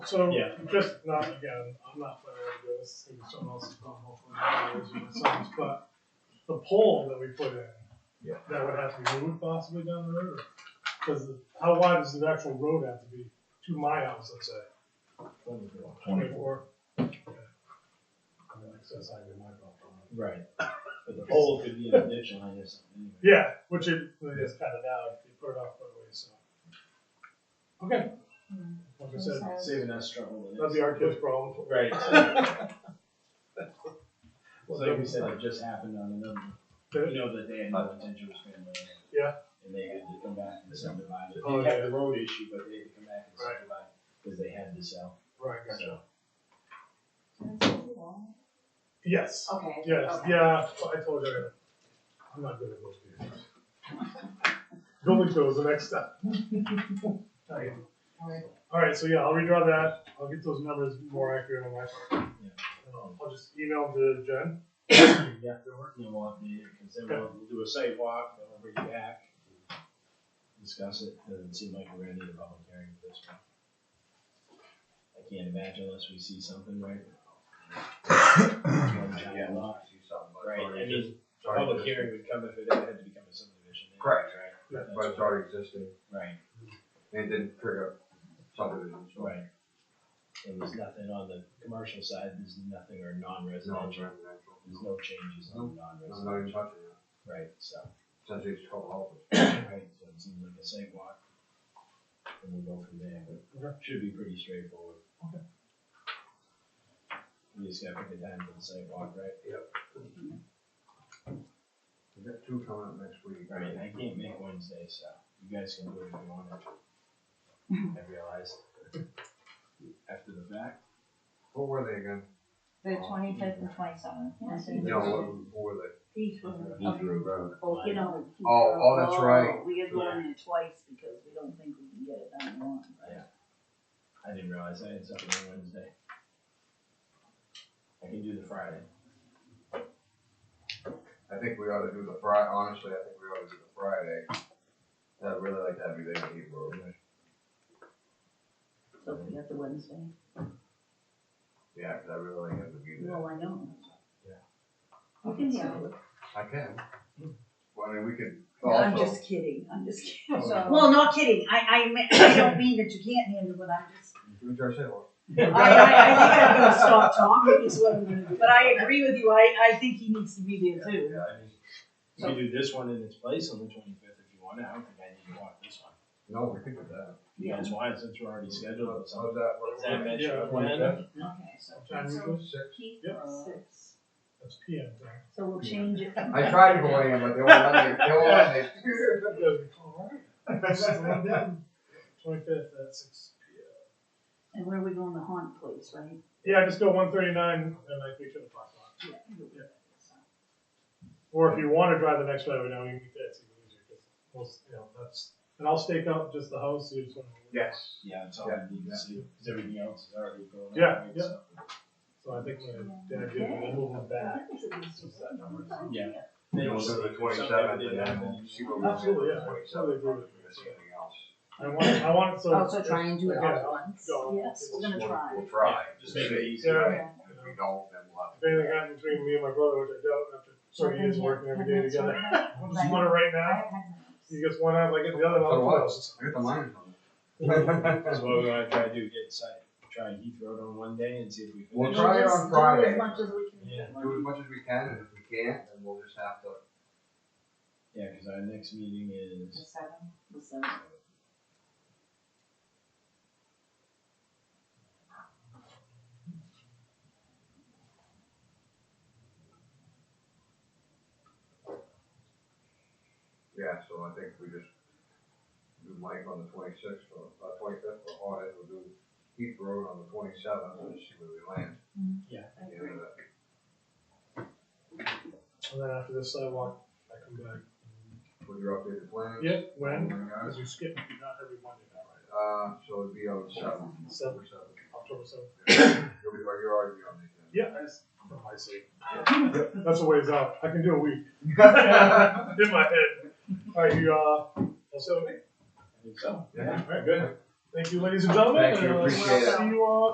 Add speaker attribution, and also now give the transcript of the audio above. Speaker 1: So,
Speaker 2: Yeah.
Speaker 1: just not again, I'm not planning on doing this, it's gonna be someone else's phone, hopefully, not yours or someone's, but the pole that we put in.
Speaker 3: Yeah.
Speaker 1: That would have to be moved possibly down the road, cause the- how wide does the actual road have to be to my house, let's say? Twenty-four? Access, I get my problem.
Speaker 2: Right. But the pole could be an addition line or something.
Speaker 1: Yeah, which it, they just cut it out, they put it off by way, so. Okay. Like I said,
Speaker 2: Saving us trouble. with it.
Speaker 1: that'd be our kid's problem.
Speaker 2: Right. Well, like we said, it just happened on another, you know, that they had no intention of family.
Speaker 1: Yeah.
Speaker 2: And they had to come back and subdivide it.
Speaker 1: Oh,
Speaker 2: They had
Speaker 1: yeah.
Speaker 2: the road issue, but they had to come back and
Speaker 1: Right.
Speaker 2: subdivide because they had to sell.
Speaker 1: Right,
Speaker 2: So,
Speaker 1: Yes.
Speaker 4: Okay.
Speaker 1: Yes,
Speaker 4: okay.
Speaker 1: yeah, I told you, I'm not good at most games. Building code is the next step. Okay.
Speaker 4: Alright.
Speaker 1: Alright, so yeah, I'll redraw that, I'll get those numbers more accurate on my part.
Speaker 2: Yeah.
Speaker 1: Um, I'll just email to Jen.
Speaker 2: yeah, they're working on what they, because then we'll, we'll do a site walk, then we'll bring you back. and Discuss it, doesn't seem like we're gonna need a public hearing for this one. I can't imagine unless we see something, right?
Speaker 5: Yeah, we'll see something, but
Speaker 2: Right, I
Speaker 5: already
Speaker 2: mean,
Speaker 5: just- already
Speaker 2: public
Speaker 5: just-
Speaker 2: hearing would come if it had to become a subdivision. anyway,
Speaker 5: Correct.
Speaker 1: Yeah.
Speaker 5: But it's already existing,
Speaker 2: Right,
Speaker 5: and it didn't trigger subdivision, so.
Speaker 2: right. And there's nothing on the commercial side, there's nothing or
Speaker 5: No, it's
Speaker 2: non-residential,
Speaker 5: residential.
Speaker 2: there's no changes on
Speaker 5: I'm not even
Speaker 2: non-residential,
Speaker 5: touching it,
Speaker 2: right, so.
Speaker 5: since it's called office.
Speaker 2: Right, so it seems like a sidewalk. And we'll go from there, but should be pretty straightforward.
Speaker 1: Okay.
Speaker 2: We just gotta pick a time for the sidewalk, right?
Speaker 5: We got two coming up next week.
Speaker 2: Right, I can't make Wednesday, so you guys can do it if you want it. I realized. After the fact,
Speaker 5: What were they again?
Speaker 6: The twenty-fifth and twenty-seventh.
Speaker 5: No, what were they?
Speaker 6: These were,
Speaker 5: Road.
Speaker 6: well, you know.
Speaker 5: Oh, oh, that's right.
Speaker 6: We had one in twice because we don't think we can get it done in one.
Speaker 2: I didn't realize I had something on Wednesday. I can do the Friday.
Speaker 5: I think we ought to do the Fri- honestly, I think we ought to do the Friday. I'd really like to have you there, Heath Road.
Speaker 6: So we got the Wednesday.
Speaker 5: Yeah, 'cause I really like having you there.
Speaker 6: Well, I know.
Speaker 2: Yeah.
Speaker 6: We can handle it.
Speaker 5: I can. Well, I mean, we could
Speaker 6: No, I'm
Speaker 5: also.
Speaker 6: just kidding. I'm just kidding.
Speaker 5: Oh,
Speaker 6: Well, not kidding. I, I, mean- I don't mean that you can't handle it. I'm just,
Speaker 5: Do it ourselves.
Speaker 6: I, I, I think I'm gonna stop talking is what I'm gonna do. But I agree with you. I, I think he needs to be there too.
Speaker 5: Yeah, I mean,
Speaker 2: You can do this one in its place on the twenty-fifth if you want, I don't think I need to walk this one.
Speaker 5: no, we could do that.
Speaker 2: You guys want it since we're already scheduled, so.
Speaker 5: How's that?
Speaker 2: Does that match
Speaker 1: Yeah.
Speaker 2: your plan?
Speaker 6: Okay, so,
Speaker 1: Time is
Speaker 4: So-
Speaker 1: good?
Speaker 5: Six.
Speaker 4: Keith,
Speaker 1: Yep.
Speaker 4: uh,
Speaker 6: six.
Speaker 1: That's PM time.
Speaker 6: So we'll change it.
Speaker 5: I tried to go in, but they won't let me, they won't let me.
Speaker 1: Twenty-fifth at six PM.
Speaker 6: And where are we going? The haunt place, right?
Speaker 1: Yeah, just go one thirty-nine and I think to the parking lot.
Speaker 6: Yeah.
Speaker 1: Or if you wanna drive the next driveway down, you can, that's even easier, cause most, you know, that's, and I'll stake out just the house, so you just wanna.
Speaker 5: Yes.
Speaker 2: Yeah, it's all
Speaker 5: Yeah.
Speaker 2: we need to see, cause everything else is already going on.
Speaker 1: Yeah,
Speaker 2: right,
Speaker 1: yeah.
Speaker 2: so-
Speaker 1: So I think my dad did, and move them back.
Speaker 2: Yeah.
Speaker 5: We'll
Speaker 2: Then we'll
Speaker 5: do
Speaker 2: see.
Speaker 5: the
Speaker 2: If
Speaker 5: 27th
Speaker 2: something
Speaker 5: and
Speaker 2: did
Speaker 5: then
Speaker 2: happen,
Speaker 5: we'll see what we
Speaker 1: Absolutely, yeah, I totally agree with you. I want, it- I want it so.
Speaker 6: Also Oh, try and do it all
Speaker 1: Yeah,
Speaker 6: at once.
Speaker 1: go.
Speaker 6: Yes, we're gonna try.
Speaker 5: We'll try.
Speaker 2: Yeah, Just make it easy.
Speaker 1: Yeah.
Speaker 5: Right,
Speaker 6: Yeah.
Speaker 5: if we don't, then we'll have
Speaker 1: If anything happens between me and my brother, which I doubt after thirty years working every day together, I just want it right now, you gets one out, like get the other,
Speaker 5: So
Speaker 1: one
Speaker 5: what?
Speaker 1: closed.
Speaker 5: Get the lines on
Speaker 2: That's
Speaker 5: it.
Speaker 2: what we're gonna try to do, get site, try Heath Road on one day and see if we.
Speaker 5: We'll
Speaker 2: finish.
Speaker 5: try it on Friday.
Speaker 6: As much as we can.
Speaker 2: Yeah,
Speaker 5: Do as much as we can, and if we can't, then we'll just have to,
Speaker 2: yeah, cause our next meeting
Speaker 6: The
Speaker 2: is,
Speaker 6: seven, the seven.
Speaker 5: yeah, so I think we just do Mike on the twenty-sixth, or, uh, twenty-fifth, or hard, we'll do Heath Road on the twenty-seventh, and just see where we land.
Speaker 2: Yeah.
Speaker 5: And then, uh,
Speaker 1: And then after this sidewalk, I come back.
Speaker 5: What your updated plan?
Speaker 1: Yep,
Speaker 5: Oh
Speaker 1: when?
Speaker 5: my gosh.
Speaker 1: Because you skip, not every Monday now, right?
Speaker 5: Uh, so it'd be on the seventh.
Speaker 1: Seven, seven, October seventh.
Speaker 5: You'll be, you're already on the
Speaker 1: Yeah, I just, I see. That's a ways out, I can do a week.
Speaker 5: agenda.
Speaker 1: In my head. Alright, you, uh, all set with me?
Speaker 2: I think so.
Speaker 5: Yeah.
Speaker 1: Alright, good.
Speaker 6: Thank you, ladies and gentlemen.
Speaker 1: Thank you,
Speaker 6: and
Speaker 1: appreciate
Speaker 2: it.
Speaker 1: uh,
Speaker 6: See you all